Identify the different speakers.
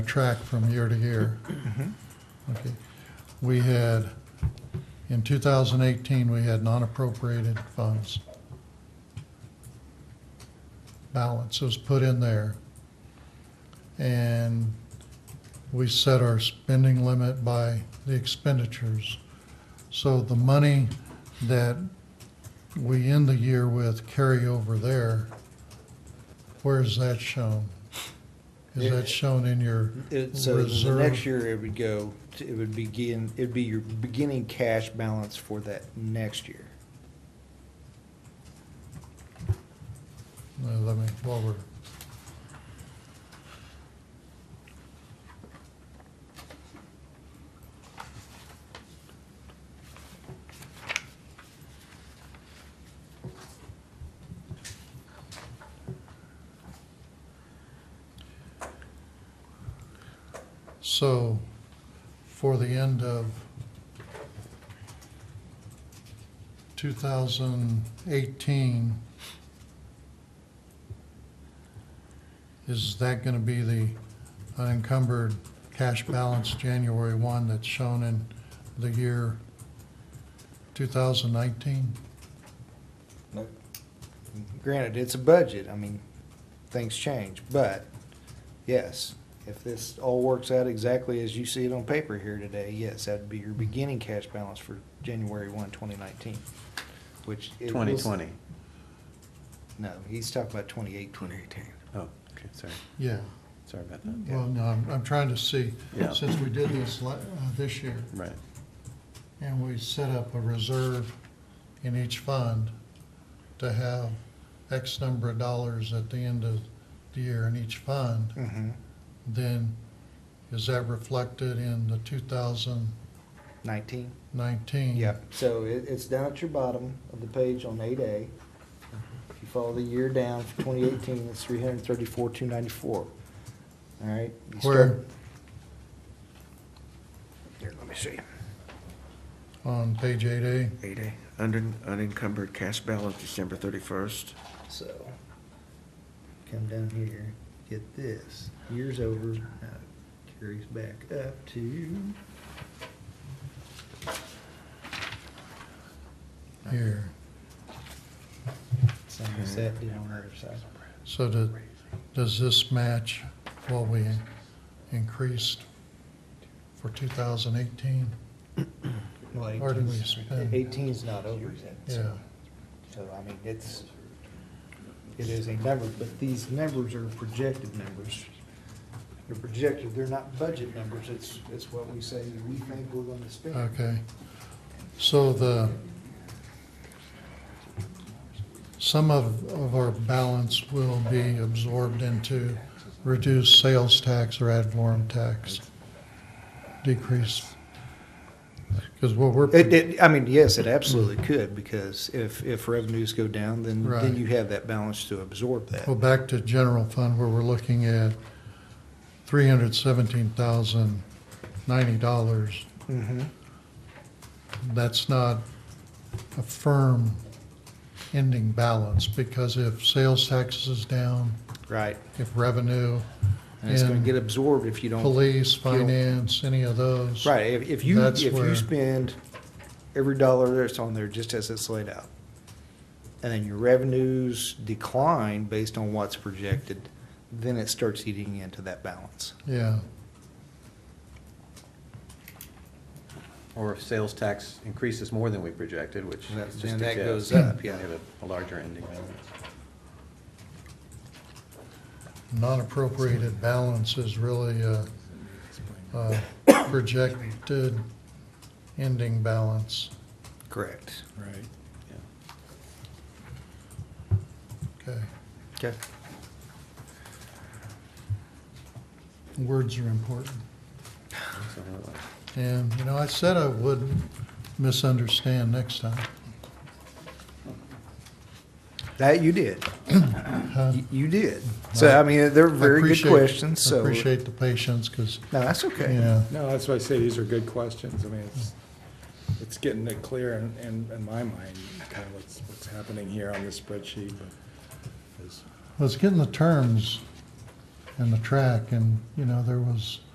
Speaker 1: track from year to year. Okay. We had, in 2018, we had non-appropriated funds. Balance was put in there. And we set our spending limit by the expenditures. So the money that we end the year with carry over there, where is that shown? Is that shown in your?
Speaker 2: It- Uh, So the
Speaker 1: Reserve.
Speaker 2: next year it would go, to- it would begin, it'd be your beginning cash balance for that next year.
Speaker 1: No, uh, Let me, while we're. So, for the end of two thousand eighteen, Is that going to be the unencumbered cash balance January 1 that's shown in the year 2019?
Speaker 2: Granted, it's a budget, I mean, things change, but yes, if this all works out exactly as you see it on paper here today, yes, that'd be your beginning cash balance for January 1, 2019, which. it will-
Speaker 3: 2020.
Speaker 2: No, he's talking about 28, 2018.
Speaker 3: Oh, okay, sorry,
Speaker 1: Yeah,
Speaker 3: sorry about that.
Speaker 1: well, no, I'm, I'm trying to see,
Speaker 3: Yeah.
Speaker 1: since we did this la- uh, this year,
Speaker 3: Right,
Speaker 1: and we set up a reserve in each fund to have X number of dollars at the end of the year in each fund,
Speaker 2: Mhm.
Speaker 1: then is that reflected in the 2019?
Speaker 2: 19? Yeah, so it, it's down at your bottom of the page on eight A. If you follow the year down for twenty eighteen, it's three hundred and thirty-four, two ninety-four. All right? you start-
Speaker 1: Where?
Speaker 2: Here, let me see.
Speaker 1: on page eight A.
Speaker 4: Eight A, unencumbered cash balance December thirty-first.
Speaker 2: So, come down here, get this, year's over, now it carries back up to.
Speaker 1: Here,
Speaker 2: Something set did on the other side.
Speaker 1: so do, does this match what we increased for two thousand eighteen?
Speaker 2: Well,
Speaker 1: Or did we
Speaker 2: 18's
Speaker 1: spend?
Speaker 2: 18's not over yet, so.
Speaker 1: Yeah,
Speaker 2: So, I mean, it's, it is a number, but these numbers are projected numbers. They're projected, they're not budget numbers, it's, it's what we say we think we're gonna spend.
Speaker 1: okay. So the, some of, of our balance will be absorbed into reduced sales tax or ad valorem tax decrease. Because what we're.
Speaker 2: It, it, I mean, yes, it absolutely could, because if, if revenues go down, then,
Speaker 1: Right.
Speaker 2: then you have that balance to absorb that.
Speaker 1: Well, back to general fund where we're looking at three hundred seventeen thousand ninety dollars.
Speaker 2: Mhm.
Speaker 1: That's not a firm ending balance because if sales tax is down,
Speaker 2: Right,
Speaker 1: if revenue,
Speaker 2: and it's gonna
Speaker 1: And
Speaker 2: get absorbed if you don't
Speaker 1: police, finance, any of those.
Speaker 2: Right, if, if you,
Speaker 1: That's
Speaker 2: if
Speaker 1: where-
Speaker 2: you spend every dollar that's on there just as it's laid out, and then your revenues decline based on what's projected, then it starts eating into that balance.
Speaker 1: Yeah,
Speaker 3: or if sales tax increases more than we projected, which
Speaker 2: That-
Speaker 3: is just
Speaker 2: then
Speaker 3: a
Speaker 2: that
Speaker 3: guess,
Speaker 2: goes up,
Speaker 3: we
Speaker 2: yeah.
Speaker 3: have a- a larger ending balance.
Speaker 1: non-appropriated balance is really a, a projected ending balance.
Speaker 2: Correct.
Speaker 4: Right.
Speaker 3: Yeah.
Speaker 1: Okay.
Speaker 2: Okay.
Speaker 1: Words are important.
Speaker 3: So, uh,
Speaker 1: And, you know, I said I wouldn't misunderstand next time.
Speaker 2: That you did,
Speaker 1: huh?
Speaker 2: You- you did. So, I mean, they're very good
Speaker 1: Uh, Appreciate-
Speaker 2: questions, so.
Speaker 1: Appreciate the patience, because,
Speaker 2: No, that's okay.
Speaker 1: you know,
Speaker 5: No, that's why I say these are good questions. I mean, it's, it's getting it clear in, in, in my mind, kind of what's, what's happening here on this spreadsheet, but it's
Speaker 1: well, it's getting the terms and the track, and, you know, there was